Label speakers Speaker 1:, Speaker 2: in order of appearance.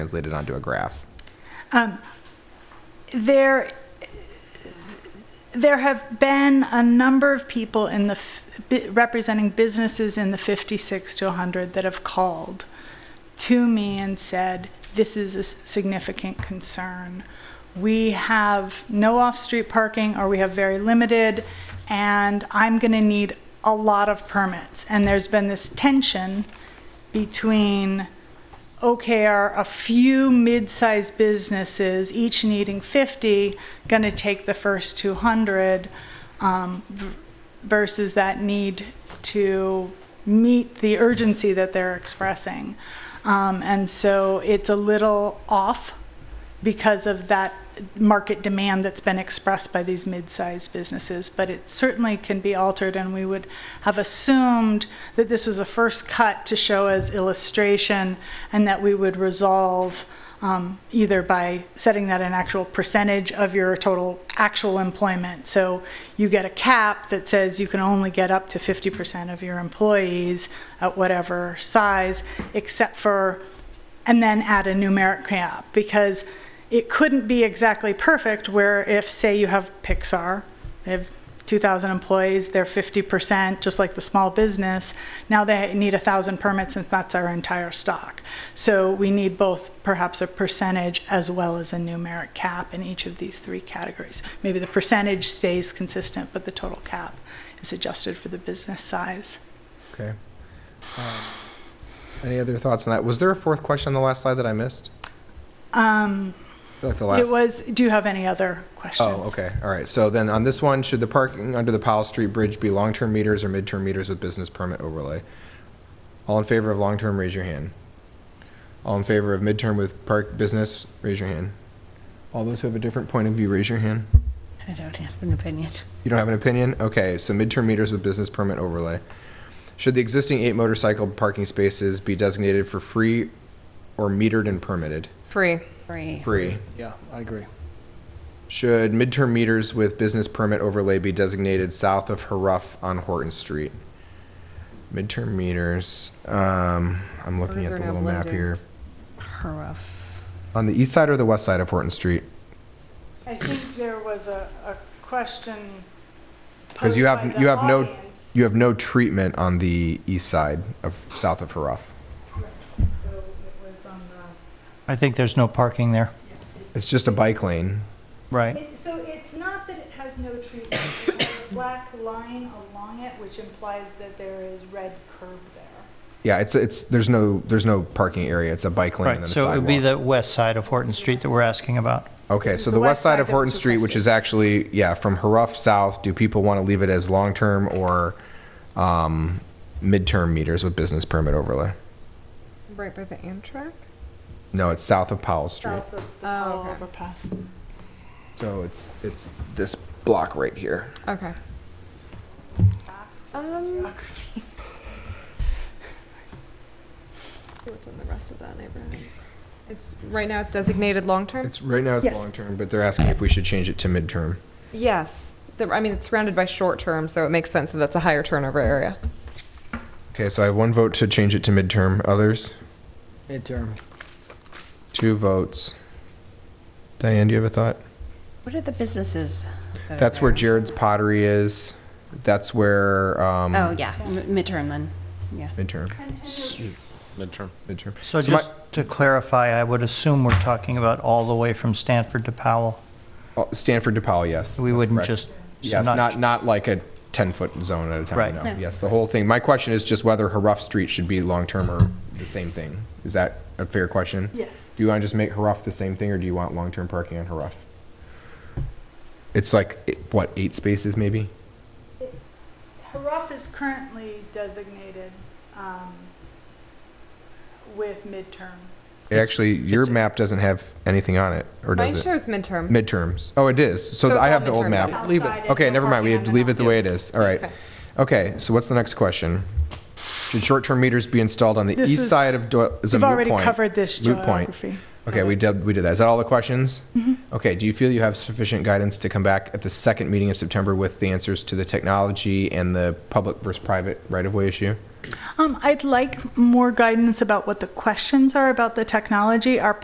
Speaker 1: translated onto a graph.
Speaker 2: There, there have been a number of people in the, f- bi- representing businesses in the 56 to 100 that have called to me and said, this is a s- significant concern. We have no off-street parking, or we have very limited, and I'm going to need a lot of permits. And there's been this tension between okay, are a few mid-sized businesses, each needing 50, going to take the first 200 um, v- versus that need to meet the urgency that they're expressing? Um, And so it's a little off because of that market demand that's been expressed by these mid-sized businesses, but it certainly can be altered, and we would have assumed that this was a first cut to show as illustration, and that we would resolve um, either by setting that an actual percentage of your total actual employment. So you get a cap that says you can only get up to 50% of your employees at whatever size, except for and then add a numeric cap because it couldn't be exactly perfect where if say you have Pixar, they have 2,000 employees, they're 50%, just like the small business. Now they need 1,000 permits and that's our entire stock. So we need both perhaps a percentage as well as a numeric cap in each of these three categories. Maybe the percentage stays consistent, but the total cap is adjusted for the business size.
Speaker 1: Okay. Um, any other thoughts on that? Was there a fourth question on the last slide that I missed?
Speaker 2: Um,
Speaker 1: Like the last.
Speaker 2: it was, do you have any other questions?
Speaker 1: Oh, okay. All right. So then on this one, should the parking under the Powell Street Bridge be long-term meters or mid-term meters with business permit overlay? All in favor of long-term, raise your hand. All in favor of mid-term with park business, raise your hand. All those who have a different point of view, raise your hand.
Speaker 3: I don't have an opinion.
Speaker 1: You don't have an opinion? Okay, so midterm meters with business permit overlay. Should the existing eight motorcycle parking spaces be designated for free or metered and permitted?
Speaker 4: Free.
Speaker 3: Free.
Speaker 1: Free.
Speaker 5: Yeah, I agree.
Speaker 1: Should midterm meters with business permit overlay be designated south of Haruff on Horton Street? Midterm meters, um, I'm looking
Speaker 4: Those
Speaker 1: at
Speaker 4: are
Speaker 1: the
Speaker 4: now
Speaker 1: little map
Speaker 4: blended.
Speaker 1: here.
Speaker 3: Rough.
Speaker 1: On the east side or the west side of Horton Street?
Speaker 2: I think there was a, a question
Speaker 1: Because
Speaker 2: posed
Speaker 1: you
Speaker 2: by
Speaker 1: have, you
Speaker 2: the
Speaker 1: have no,
Speaker 2: audience.
Speaker 1: you have no treatment on the east side of, south of Haruff.
Speaker 2: So it was on
Speaker 6: I think there's no parking there,
Speaker 1: It's just a bike lane.
Speaker 2: the-
Speaker 6: right?
Speaker 2: It- So it's not that it has no trees, it has a black line along it, which implies that there is red curb there.
Speaker 1: Yeah, it's it's there's no there's no parking area. It's a bike lane and
Speaker 6: Right,
Speaker 1: then
Speaker 6: so
Speaker 1: a
Speaker 6: it would
Speaker 1: sidewalk.
Speaker 6: be the west side of Horton Street that we're asking about.
Speaker 1: okay,
Speaker 2: This is
Speaker 1: so the, west side of
Speaker 2: that
Speaker 1: Horton
Speaker 2: was
Speaker 1: Street, which
Speaker 2: requested.
Speaker 1: is actually yeah, from Haruff South. Do people want to leave it as long term or um, midterm meters with business permit overlay?
Speaker 4: Right by the Amtrak?
Speaker 1: No, it's south of Powell Street.
Speaker 2: South of the
Speaker 4: Oh,
Speaker 2: Powell
Speaker 4: okay.
Speaker 2: overpass.
Speaker 1: So it's it's this block right here.
Speaker 4: Oh, Okay. Um. What's in the rest of that neighborhood? It's, right now it's designated long-term?
Speaker 1: It's right now it's
Speaker 2: Yes.
Speaker 1: long term, but they're asking if we should change it to midterm.
Speaker 4: Yes. The- I mean, it's surrounded by short-term, so it makes sense that that's a higher turnover area.
Speaker 1: Okay, so I have one vote to change it to midterm. Others,
Speaker 5: Midterm.
Speaker 1: two votes. Diane, do you have a thought?
Speaker 3: What are the businesses? that are
Speaker 1: That's where
Speaker 3: there?
Speaker 1: Jared's Pottery is. That's where um,
Speaker 3: Oh, yeah, m- midterm then, yeah.
Speaker 1: midterm.
Speaker 2: And- and there's
Speaker 7: midterm.
Speaker 1: Midterm.
Speaker 6: So
Speaker 1: my-
Speaker 6: just to clarify, I would assume we're talking about all the way from Stanford to Powell.
Speaker 1: oh, Stanford DePaul, yes.
Speaker 6: We
Speaker 1: that's
Speaker 6: wouldn't
Speaker 1: correct.
Speaker 6: just, so
Speaker 1: Yes, not
Speaker 6: not,
Speaker 1: not like a ten foot zone at a time.
Speaker 6: Right.
Speaker 1: No.
Speaker 3: No.
Speaker 1: Yes, the whole thing. My question is just whether Haruff Street should be long term or the same thing. Is that a fair question?
Speaker 2: Yes.
Speaker 1: Do you want to just make Haruff the same thing, or do you want long term parking on Haruff? It's like eh, what eight spaces maybe.
Speaker 2: Haruff is currently designated um, with midterm.
Speaker 1: It actually, your
Speaker 6: it's-
Speaker 1: map doesn't have anything on it, or does
Speaker 4: Mine
Speaker 1: it?
Speaker 4: shows midterm.
Speaker 1: Midterms. Oh, it is. So,
Speaker 4: So it's
Speaker 1: I
Speaker 4: all
Speaker 1: have the old
Speaker 4: midterms.
Speaker 1: map.
Speaker 2: South
Speaker 1: Leave
Speaker 2: side
Speaker 1: it.
Speaker 2: and
Speaker 1: Okay,
Speaker 2: no
Speaker 1: never mind. We
Speaker 2: parking
Speaker 1: have
Speaker 2: on
Speaker 1: to
Speaker 2: the
Speaker 1: leave it the
Speaker 2: north.
Speaker 1: way it is. All right.
Speaker 4: Okay.
Speaker 1: Okay, so what's the next question? Should short-term meters be installed on the
Speaker 2: This
Speaker 1: east
Speaker 2: was-
Speaker 1: side of Doyle? is a
Speaker 2: You've
Speaker 1: moot
Speaker 2: already
Speaker 1: point.
Speaker 2: covered this
Speaker 1: Moot point.
Speaker 2: geography. Uh-huh. Mm-hmm.
Speaker 1: Okay, we did, we did that. Is that all the questions? Okay, do you feel you have sufficient guidance to come back at the second meeting of September with the answers to the technology and the public versus private right-of-way issue?
Speaker 2: Um, I'd like more guidance about what the questions are about the technology. Our